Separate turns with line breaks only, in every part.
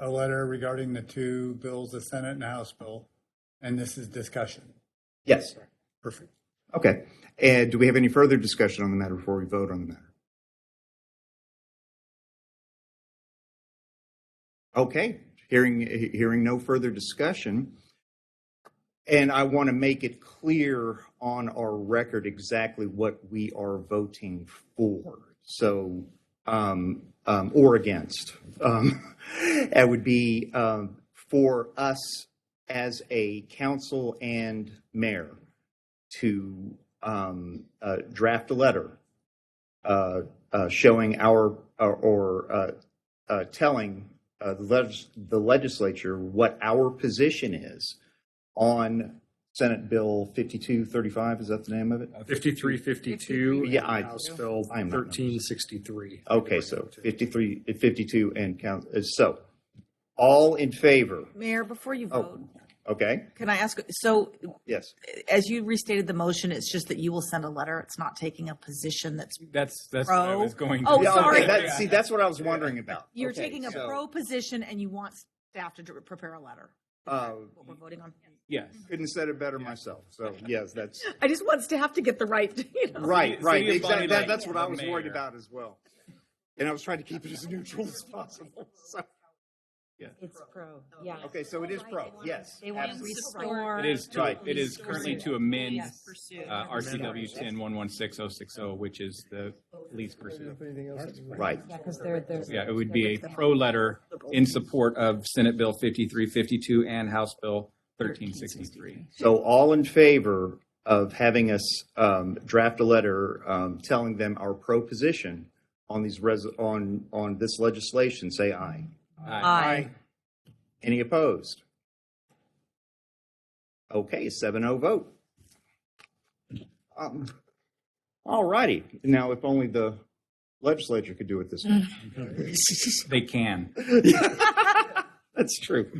a letter regarding the two bills, the Senate and House bill, and this is discussion.
Yes.
Perfect.
Okay. And do we have any further discussion on the matter before we vote on the matter? Okay, hearing, he- hearing no further discussion. And I want to make it clear on our record exactly what we are voting for. So, um, um, or against. Um, that would be, um, for us as a council and mayor to um, uh, draft a letter uh, uh, showing our or, or uh, uh, telling uh, the, legis- the legislature what our position is on Senate Bill 5235. Is that the name of it?
5352.
Yeah, I-
House Bill
I am not-
1363.
Okay, so 53, 52, and count. uh, So all in favor?
Mayor, before
Oh.
you vote,
Okay,
can I ask, so
yes.
as you restated the motion, it's just that you will send a letter. It's not taking a position that's,
That's that's what I
Pro.
was going.
Oh,
to
Yeah, okay,
sorry.
that- see, that's what I was wondering about.
you're
Okay,
taking a
so,
pro position and you want staff to dr- prepare a letter,
uh,
what we're voting on.
Yes.
Couldn't have said it better myself. So yes, that's.
I just want staff to get the right, you know.
Right,
City-
right.
City of
Exactly.
Bonnie
That,
Lake,
that's what I
the
was worried
mayor.
about as well. And I was trying to keep it as neutral as possible. So,
It's pro, yeah.
okay, so it is pro. Yes.
They want to
absolutely.
restore.
It is to,
Right.
it is currently to amend uh, RCW
Amend.
ten one one six oh six oh, which is the police pursuit.
Right.
Yeah, because they're, they're.
Yeah, it would be a pro letter in support of Senate Bill fifty-three fifty-two and House Bill thirteen sixty-three.
So all in favor of having us um, draft a letter um, telling them our pro position on these res- on on this legislation, say aye.
Aye.
Any opposed? Okay, 7-0 vote. Um, All righty. Now, if only the legislature could do it this way.
They can.
That's true.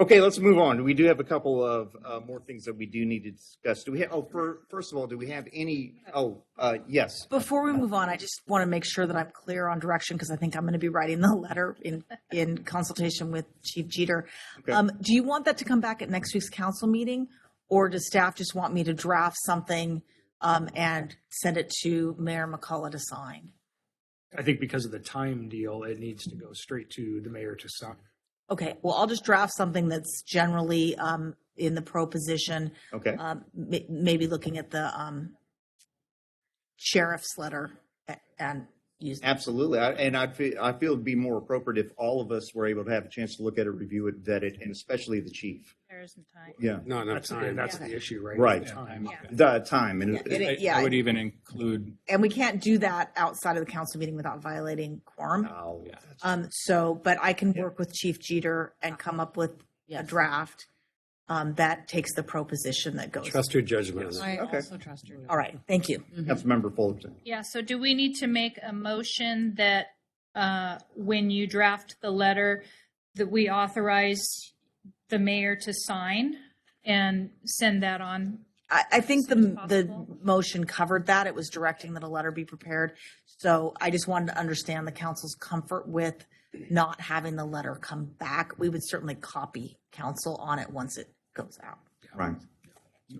Okay, let's move on. We do have a couple of uh, more things that we do need to discuss. Do we have, oh, fir- first of all, do we have any, oh, uh, yes.
Before we move on, I just want to make sure that I'm clear on direction because I think I'm going to be writing the letter in, in consultation with Chief Jeter.
Okay.
Um, do you want that to come back at next week's council meeting? Or does staff just want me to draft something, um, and send it to Mayor McCullough to sign?
I think because of the time deal, it needs to go straight to the mayor to sign.
Okay, well, I'll just draft something that's generally, um, in the pro position,
Okay,
um, ma- maybe looking at the, um, sheriff's letter a- and use.
absolutely. I- And I feel, I feel it'd be more appropriate if all of us were able to have a chance to look at it, review it, vet it, and especially the chief. Yeah,
Not enough
That's,
time.
that's the issue, right?
Right.
The time.
the time and.
Yeah,
I-
Yeah.
I would even include
and we can't do that outside of the council meeting without violating quorum.
Ah,
Oh,
Yeah.
Um, so, but I can work with Chief Jeter and come up with a
Yes.
draft um, that takes the proposition that goes.
Trust your judgment.
I
Okay.
also trust you.
All right, thank you.
Councilmember Fullerton.
Yeah, so do we need to make a motion that uh, when you draft the letter, that we authorize the mayor to sign and send that on?
I, I think the
Soon as
the
possible.
motion covered that. It was directing that a letter be prepared. So I just wanted to understand the council's comfort with not having the letter come back. We would certainly copy council on it once it goes out.
Right.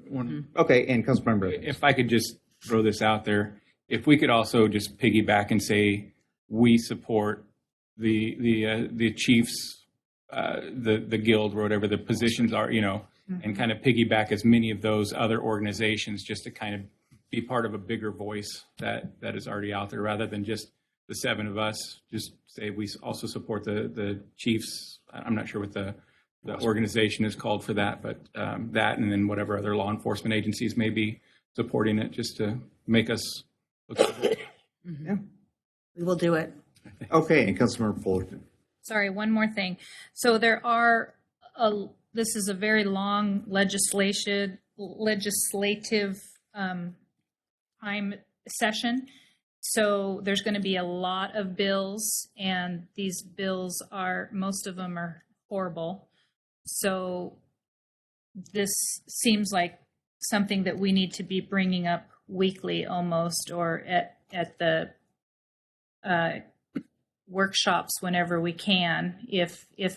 one,
Okay, and Councilmember. Evans.
if I could just throw this out there, if we could also just piggyback and say, we support the, the, uh, the chiefs, uh, the, the guild, or whatever the positions are, you know, and kind of piggyback as many of those other organizations just to kind of be part of a bigger voice that, that is already out there, rather than just the seven of us, just say, we also support the, the chiefs. I- I'm not sure what the, the organization is called for that, but um, that and then whatever other law enforcement agencies may be supporting it, just to make us look
We will do it.
Okay, and Councilmember Fullerton.
Sorry, one more thing. So there are, a- this is a very long legislation, legislative um, time session. So there's going to be a lot of bills and these bills are, most of them are horrible. So this seems like something that we need to be bringing up weekly almost or at, at the uh, workshops whenever we can if if